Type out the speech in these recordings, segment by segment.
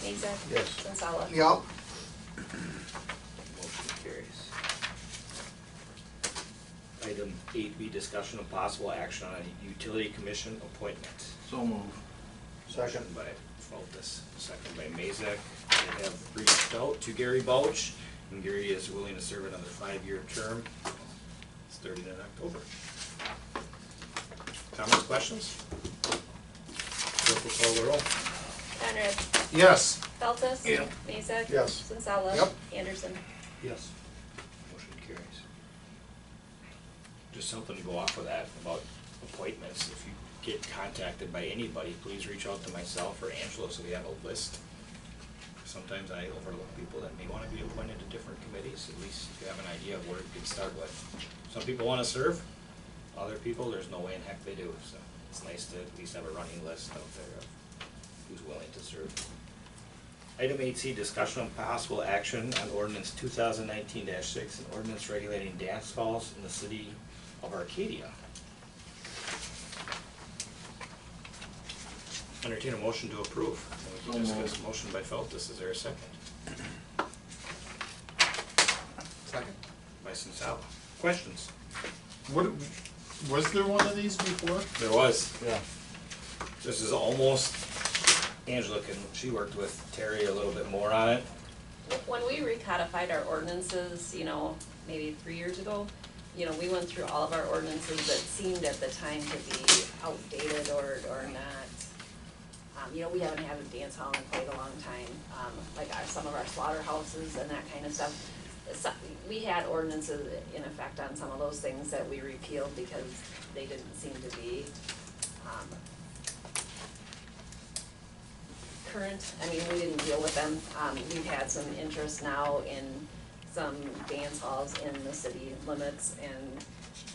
Caesar. Yes. Sensala. Yep. Motion carries. Item eight B, discussion of possible action on a utility commission appointment. So move. Second. Motion By Feltus, second by Mazak. They have reached out to Gary Bouch, and Gary is willing to serve another five-year term, starting in October. Comments, questions? Clerk will call the roll. Conrad. Yes. Feltes. Yeah. Mazak. Yes. Sensala. Yep. Anderson. Yes. Motion carries. Just something to go off of that about appointments. If you get contacted by anybody, please reach out to myself or Angelo so we have a list. Sometimes I overlook people that may want to be appointed to different committees, at least you have an idea of where you can start with. Some people want to serve, other people, there's no way in heck they do, so it's nice to at least have a running list out there of who's willing to serve. Item eight C, discussion on possible action on ordinance two thousand nineteen six, an ordinance regulating dance halls in the city of Arcadia. Entertain a motion to approve. And we can So moved. discuss. Motion by Feltus, is there a second? Second. By Sensala. Questions? What, was there one of these before? There was. Yeah. This is almost, Angela can, she worked with Terry a little bit more on it. When we recodified our ordinances, you know, maybe three years ago, you know, we went through all of our ordinances that seemed at the time to be outdated or, or not. Um, you know, we haven't had a dance hall in quite a long time, um, like our, some of our slaughterhouses and that kind of stuff. So- we had ordinances in effect on some of those things that we repealed because they didn't seem to be, um, current, I mean, we didn't deal with them. Um, we've had some interest now in some dance halls in the city limits and,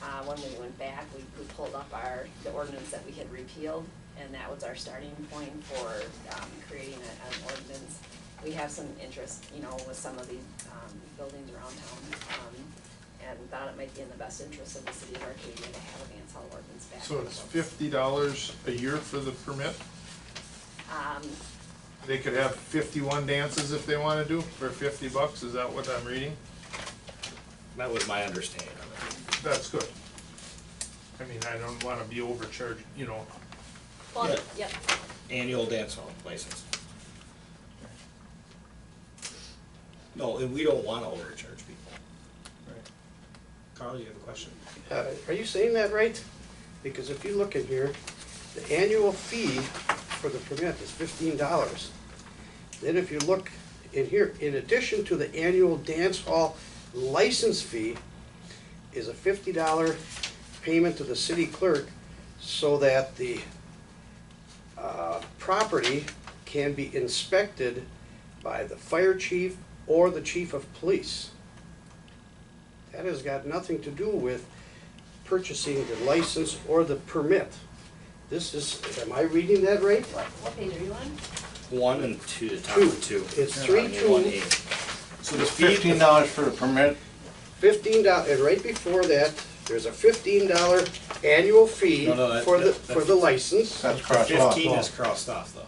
uh, when we went back, we, we pulled up our, the ordinance that we had repealed and that was our starting point for, um, creating a- an ordinance. We have some interest, you know, with some of these, um, buildings around town, um, and thought it might be in the best interest of the city of Arcadia to have a dance hall ordinance back. So it's fifty dollars a year for the permit? Um, They could have fifty-one dances if they wanna do for fifty bucks, is that what I'm reading? That was my understanding of it. That's good. I mean, I don't wanna be overcharged, you know, well, Yeah. yep, Annual dance hall license. No, and we don't wanna overcharge people. Carl, you have a question? Uh, Are you saying that right? Because if you look in here, the annual fee for the permit is fifteen dollars. Then if you look in here, in addition to the annual dance hall license fee is a fifty dollar payment to the city clerk so that the uh, property can be inspected by the fire chief or the chief of police. That has got nothing to do with purchasing the license or the permit. This is, am I reading that right? what, what page are you on? One and two, the top of two. It's three, On your One two. A. So the fifteen dollars for the permit, Fifteen dollars, and right before that, there's a fifteen dollar annual fee No, no, that- for the, that- for the license. that's crossed off. Fifteen is crossed off though.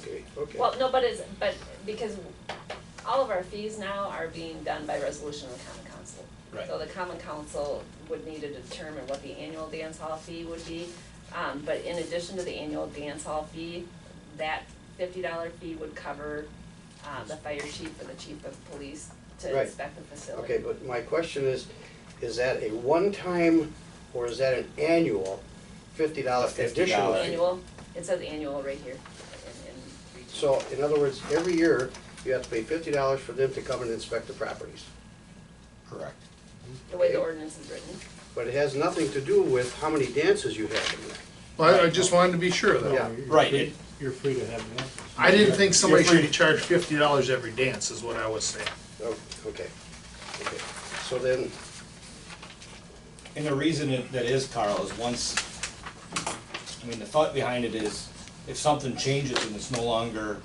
Okay, okay. Well, no, but it's, but because all of our fees now are being done by resolution of the common council. Right. So the common council would need to determine what the annual dance hall fee would be. Um, but in addition to the annual dance hall fee, that fifty dollar fee would cover, uh, the fire chief or the chief of police to Right. inspect the facility. Okay, but my question is, is that a one-time or is that an annual fifty dollar additional $50. fee? Annual, it says annual right here in, in. region. So, in other words, every year, you have to pay fifty dollars for them to come and inspect the properties. Correct. The way the ordinance is written. But it has nothing to do with how many dances you have in there. well, I- I just wanted to be sure of Yeah. that. Right, it, You're free to have an answer. I didn't think somebody You're free should be charged fifty dollars every dance, is what I was saying. Oh, okay, okay. So then, And the reason it- that is, Carl, is once, I mean, the thought behind it is, if something changes and it's no longer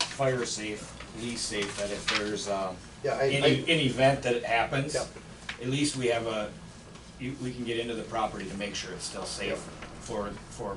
fire safe, police safe, that if there's, um, yeah, I, any, I, an event that happens, Yep. at least we have a, you, we can get into the property to make sure it's still safe for, for